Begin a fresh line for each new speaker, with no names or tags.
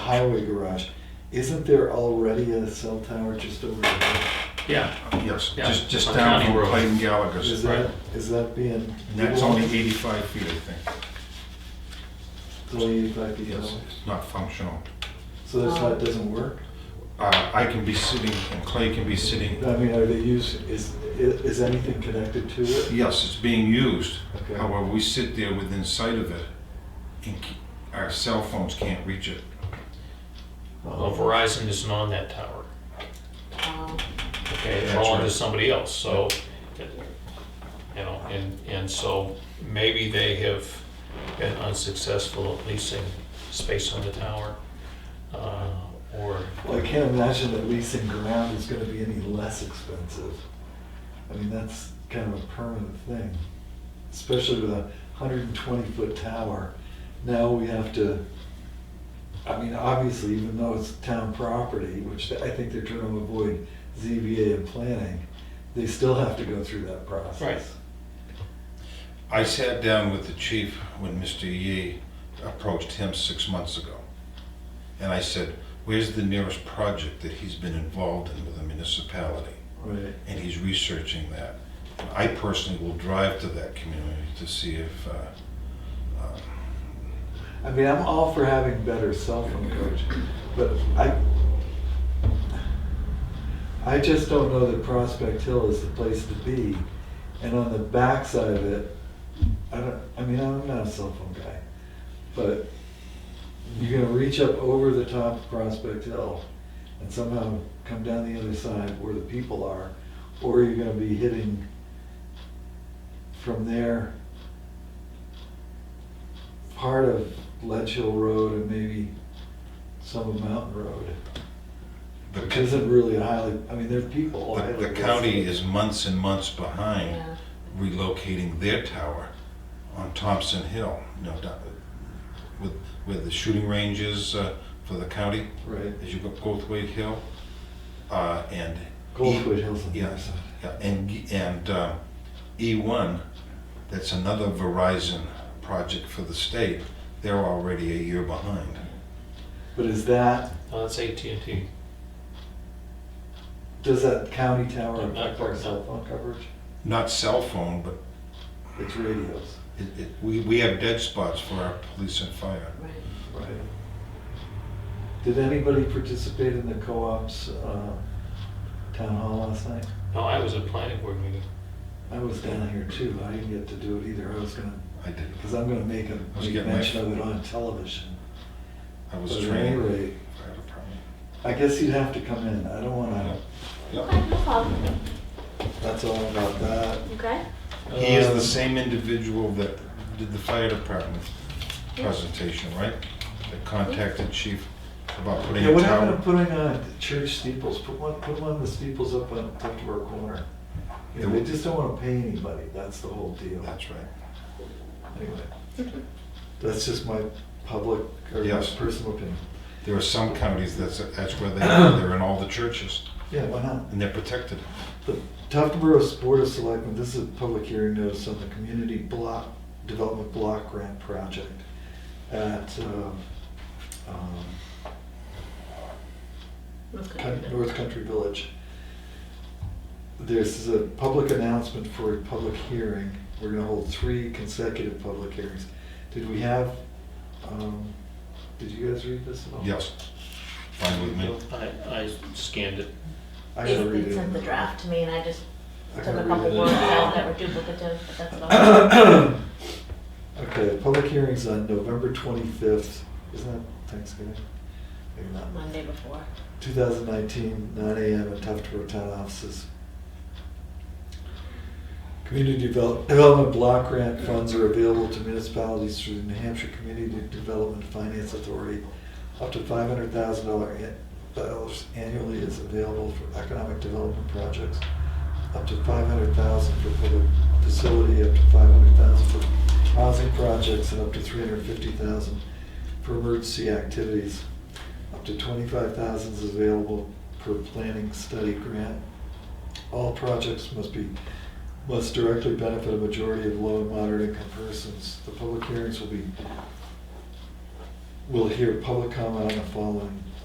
highway garage, isn't there already a cell tower just over there?
Yeah,
Yes,
Yeah,
just, just
on
down
County
from
Road.
Clayton
Is
Gallagher's.
that, is that being?
And that's only 85 feet, I think.
Only eighty-five feet
Yes,
tall.
it's not functional.
So that's why it doesn't work?
Uh, I can be sitting, and Clay can be sitting.
I mean, are they use, is, i- is anything connected to it?
Yes, it's being used.
Okay.
However, we sit there within sight of it, and ke- our cell phones can't reach it.
well Verizon isn't on that tower,
Um,
okay, they're
That's
on to
right.
somebody else, so, you know, and, and so maybe they have been unsuccessful at leasing space on the tower, uh, or,
Well, I can't imagine that leasing ground is gonna be any less expensive. I mean, that's kind of a permanent thing, especially with a hundred and twenty foot tower. Now we have to, I mean, obviously, even though it's town property, which I think they're trying to avoid ZBA and planning, they still have to go through that process.
Right.
I sat down with the chief when Mr. Yee approached him six months ago. And I said, where's the nearest project that he's been involved in with a municipality?
Right.
And he's researching that. I personally will drive to that community to see if, uh, uh,
I mean, I'm all for having better cell phone coverage, but I, I just don't know that Prospect Hill is the place to be. And on the backside of it, I don't, I mean, I'm not a cell phone guy, but you're gonna reach up over the top of Prospect Hill and somehow come down the other side where the people are, or you're gonna be hitting from there part of Ledge Hill Road and maybe some of Mountain Road,
the
which isn't really a highly, I mean, there are people.
The, the
highly-
county is months and months behind
yeah.
relocating their tower on Thompson Hill, you know, down- with, with the shooting ranges uh, for the county,
Right,
as you go Goldthwaite Hill, uh, and.
Goldwood Hills on the other
Yes,
side.
yeah, and, and uh, E1, that's another Verizon project for the state, they're already a year behind.
But is that,
no, that's AT&T.
does that county tower
Not
affect our
right now.
cell phone coverage?
Not cell phone, but
It's radios.
it, it, we, we have dead spots for our police and fire.
Right.
Right. Did anybody participate in the co-op's uh, town hall last night?
No, I was at planning board meeting.
I was down here too. I didn't get to do it either. I was gonna,
I did,
because I'm gonna make a
I was
make
getting my-
mention of it on television.
I was
But at any
trained.
rate,
Fire department.
I guess you'd have to come in. I don't wanna,
Yep.
Okay, no problem.
that's all about that.
Okay.
He is
Um,
the same individual that did the fire department
Yeah.
presentation, right? That contacted chief about putting
Yeah,
a
what happened to
tower.
putting on church steeples? Put one, put one of the steeples up on Tupperware Corner. You know, they just don't wanna pay anybody. That's the whole deal.
That's right.
Anyway, that's just my public or my
Yes.
personal opinion.
There are some counties that's, that's where they are, they're in all the churches,
Yeah, why not?
and they're protected.
The Tufton Borough Board of Selectmen, this is a public hearing notice on the Community Block, Development Block Grant Project at um, um, Coun-
Okay.
North Country Village. This is a public announcement for a public hearing. We're gonna hold three consecutive public hearings. Did we have, um, did you guys read this at all?
Yes, fine with me.
I, Uh, I scanned it.
I
They
gotta read
they
it.
sent the draft to me and I just
I
took
gotta
a
read
couple
it.
words out that were duplicative, but that's about it.
Okay, public hearing's on November twenty-fifth, isn't that Thanksgiving? Maybe not.
Monday before.
2019, 9 AM at Tufts Road Town Offices. Community develop- Development Block Grant funds are available to municipalities through the New Hampshire Community Development Finance Authority. Up to $500,000 an- dollars annually is available for economic development projects. Up to 500,000 dollars for public facility, up to 500,000 dollars for housing projects, and up to 350,000 dollars for emergency activities. Up to twenty-five thousand is available per planning study grant. All projects must be, must directly benefit a majority of low and moderate income persons. The public hearings will be We'll hear public comment on the following